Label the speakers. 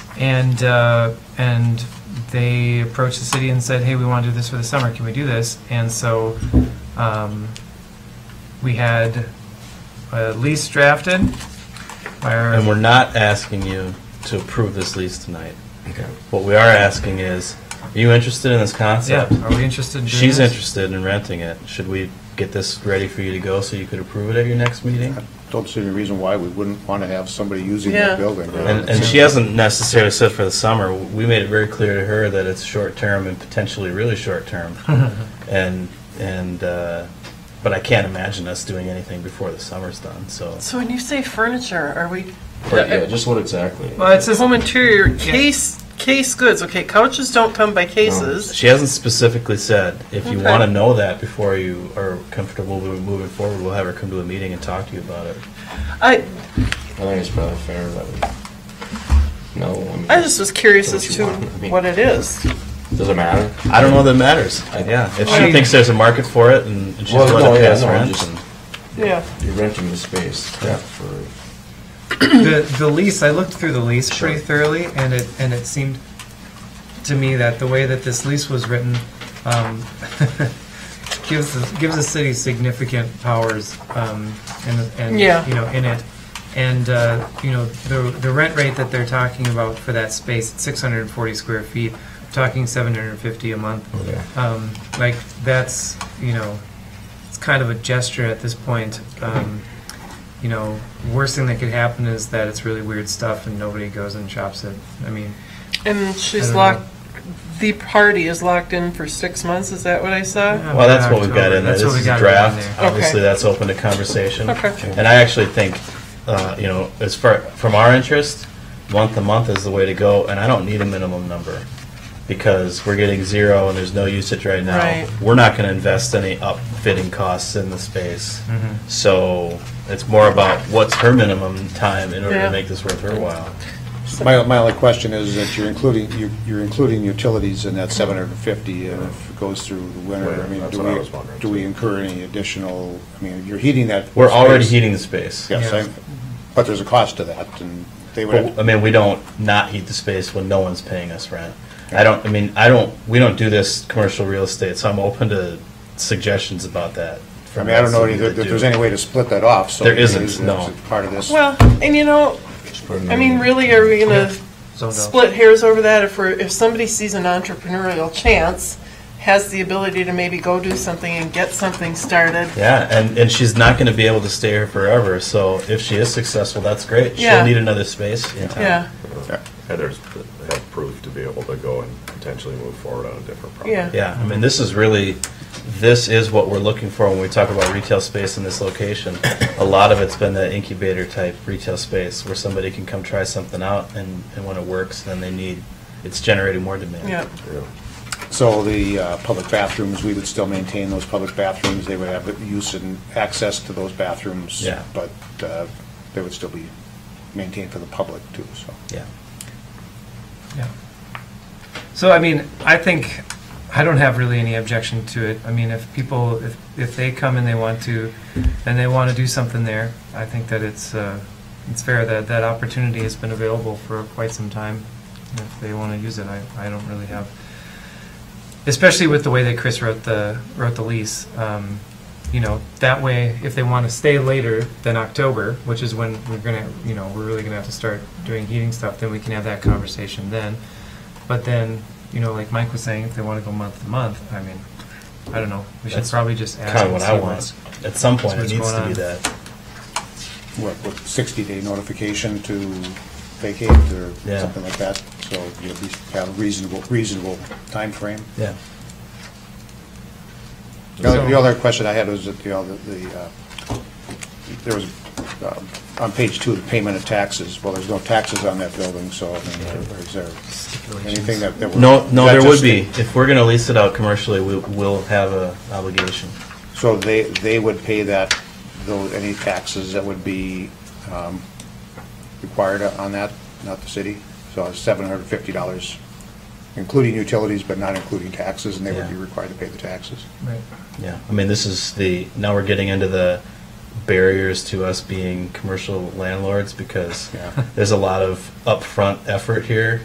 Speaker 1: And, uh, and they approached the city and said, hey, we want to do this for the summer, can we do this? And so um, we had a lease drafted by our.
Speaker 2: And we're not asking you to approve this lease tonight.
Speaker 3: Okay.
Speaker 2: What we are asking is, are you interested in this
Speaker 1: Yeah,
Speaker 2: concept?
Speaker 1: are we interested in doing
Speaker 2: She's
Speaker 1: this?
Speaker 2: interested in renting it. Should we get this ready for you to go so you could approve it at your next meeting?
Speaker 4: Don't see any reason why we wouldn't want to have somebody using that building.
Speaker 2: And, and she hasn't necessarily said for the summer. We made it very clear to her that it's short-term and potentially really short-term. And, and, uh, but I can't imagine us doing anything before the summer's done, so.
Speaker 5: So when you say furniture, are we? uh,
Speaker 3: just what exactly?
Speaker 1: Well, it says
Speaker 5: Home interior, case, case goods, okay, couches don't come by cases.
Speaker 2: She hasn't specifically said, if you
Speaker 5: Okay.
Speaker 2: want to know that before you are comfortable with moving forward, we'll have her come to a meeting and talk to you about it.
Speaker 3: Oh.
Speaker 5: I,
Speaker 3: I think it's probably fair that we, no, I mean.
Speaker 5: I just was curious
Speaker 3: Do what
Speaker 5: as
Speaker 3: you
Speaker 5: to
Speaker 3: want. I mean-
Speaker 5: what it is.
Speaker 3: Does it matter?
Speaker 2: I don't know that it matters.
Speaker 3: I-
Speaker 2: Yeah, if
Speaker 1: I-
Speaker 2: she thinks there's a market for it and and she's
Speaker 3: Well,
Speaker 2: willing
Speaker 3: no,
Speaker 2: to
Speaker 3: yeah,
Speaker 2: pass
Speaker 3: no, I'm
Speaker 2: rent.
Speaker 3: just-
Speaker 2: and-
Speaker 5: Yeah.
Speaker 3: You're renting the space for,
Speaker 1: the, the lease, I looked through the lease pretty thoroughly, and it, and it seemed to me that the way that this lease was written um, gives, the- gives the city significant powers um, and, and,
Speaker 5: Yeah.
Speaker 1: you know, in it. And, uh, you know, the, the rent rate that they're talking about for that space, it's 640 square feet, we're talking 750 a month. Um, Like, that's, you know, it's kind of a gesture at this point. Um, you know, worst thing that could happen is that it's really weird stuff and nobody goes and shops it. I mean,
Speaker 5: And
Speaker 1: I
Speaker 5: she's
Speaker 1: don't
Speaker 5: locked, the party is locked in for six months, is that what I saw?
Speaker 2: Well, that's what we've got in there.
Speaker 1: That's
Speaker 2: This
Speaker 1: what we
Speaker 2: is a
Speaker 1: got in
Speaker 2: draft.
Speaker 1: there.
Speaker 2: Obviously,
Speaker 5: Okay.
Speaker 2: that's open to conversation.
Speaker 5: Okay.
Speaker 2: And I actually think, uh, you know, as far, from our interest, month to month is the way to go, and I don't need a minimum number, because we're getting zero and there's no usage right now.
Speaker 5: Right.
Speaker 2: We're not gonna invest any upfitting costs in the space.
Speaker 1: Mm-hmm.
Speaker 2: So it's more about what's her minimum time in order
Speaker 5: Yeah.
Speaker 2: to make this worth her while.
Speaker 4: Uh, My, my only question is that you're including, you- you're including utilities in that 750, and if it goes through the winter, I
Speaker 3: Right,
Speaker 4: mean,
Speaker 3: that's
Speaker 4: do
Speaker 3: what I
Speaker 4: we,
Speaker 3: was wondering,
Speaker 4: do we incur any additional, I mean, you're heating that.
Speaker 2: We're already
Speaker 4: space.
Speaker 2: heating the space.
Speaker 4: Yes, I- but there's a cost to that, and they would. have-
Speaker 2: But, I mean, we don't not heat the space when no one's paying us rent. I don't, I mean, I don't, we don't do this commercial real estate, so I'm open to suggestions about that.
Speaker 4: I
Speaker 2: from
Speaker 4: mean, I don't know
Speaker 2: somebody
Speaker 4: any- if
Speaker 2: that
Speaker 4: there's
Speaker 2: do.
Speaker 4: any way to split that off, so.
Speaker 2: There
Speaker 4: it is-
Speaker 2: isn't,
Speaker 4: it's
Speaker 2: no.
Speaker 4: Part of this.
Speaker 5: Well, and you know, I mean,
Speaker 3: Mm.
Speaker 5: really, are we gonna
Speaker 1: So no.
Speaker 5: split hairs over that if we're, if somebody sees an entrepreneurial chance, has the ability to maybe go do something and get something started?
Speaker 2: Yeah, and, and she's not gonna be able to stay here forever, so if she is successful, that's great. She'll
Speaker 5: Yeah.
Speaker 2: need another space in town.
Speaker 5: Yeah,
Speaker 6: Heather's have proof to be able to go and potentially move forward on a different property.
Speaker 5: yeah.
Speaker 2: Yeah, I mean, this is really, this is what we're looking for when we talk about retail space in this location. A lot of it's been that incubator type retail space where somebody can come try something out and, and when it works, then they need, it's generating more demand.
Speaker 5: Yeah,
Speaker 4: So the uh, public bathrooms, we would still maintain those public bathrooms, they would have use and access to those bathrooms.
Speaker 2: Yeah.
Speaker 4: But uh, they would still be maintained for the public too, so.
Speaker 2: Yeah.
Speaker 1: Yeah. So, I mean, I think, I don't have really any objection to it. I mean, if people, if, if they come and they want to, and they want to do something there, I think that it's, uh, it's fair that that opportunity has been available for quite some time. And If they want to use it, I, I don't really have, especially with the way that Chris wrote the, wrote the lease. Um, you know, that way, if they want to stay later than October, which is when we're gonna, you know, we're really gonna have to start doing heating stuff, then we can have that conversation then. But then, you know, like Mike was saying, if they want to go month to month, I mean, I don't know, we should
Speaker 2: That's
Speaker 1: probably just ask.
Speaker 2: Kind of what
Speaker 1: and see
Speaker 2: I want. At some point, it
Speaker 1: That's
Speaker 2: needs
Speaker 1: what's
Speaker 2: to be
Speaker 1: going on.
Speaker 2: that.
Speaker 4: What, what, 60-day notification to vacate or
Speaker 2: Yeah.
Speaker 4: something like that? So you at least have a reasonable, reasonable timeframe.
Speaker 2: Yeah.
Speaker 4: The other- the
Speaker 1: So-
Speaker 4: other question I had was that, you know, the- the, uh, there was, um, on page two, the payment of taxes. Well, there's no taxes on that building, so I mean, is there anything that? that we're-
Speaker 2: No, no,
Speaker 4: that
Speaker 2: there would
Speaker 4: just-
Speaker 2: be. If we're going to lease it out commercially, we will have a obligation.
Speaker 4: So they, they would pay that, though, any taxes that would be um, required on that, not the city? So it's seven hundred and fifty dollars, including utilities, but not including taxes, and they would be
Speaker 2: Yeah.
Speaker 4: required to pay the taxes.
Speaker 1: Right.
Speaker 2: Yeah. I mean, this is the, now we're getting into the barriers to us being commercial landlords because
Speaker 4: Yeah.
Speaker 2: there's a lot of upfront effort here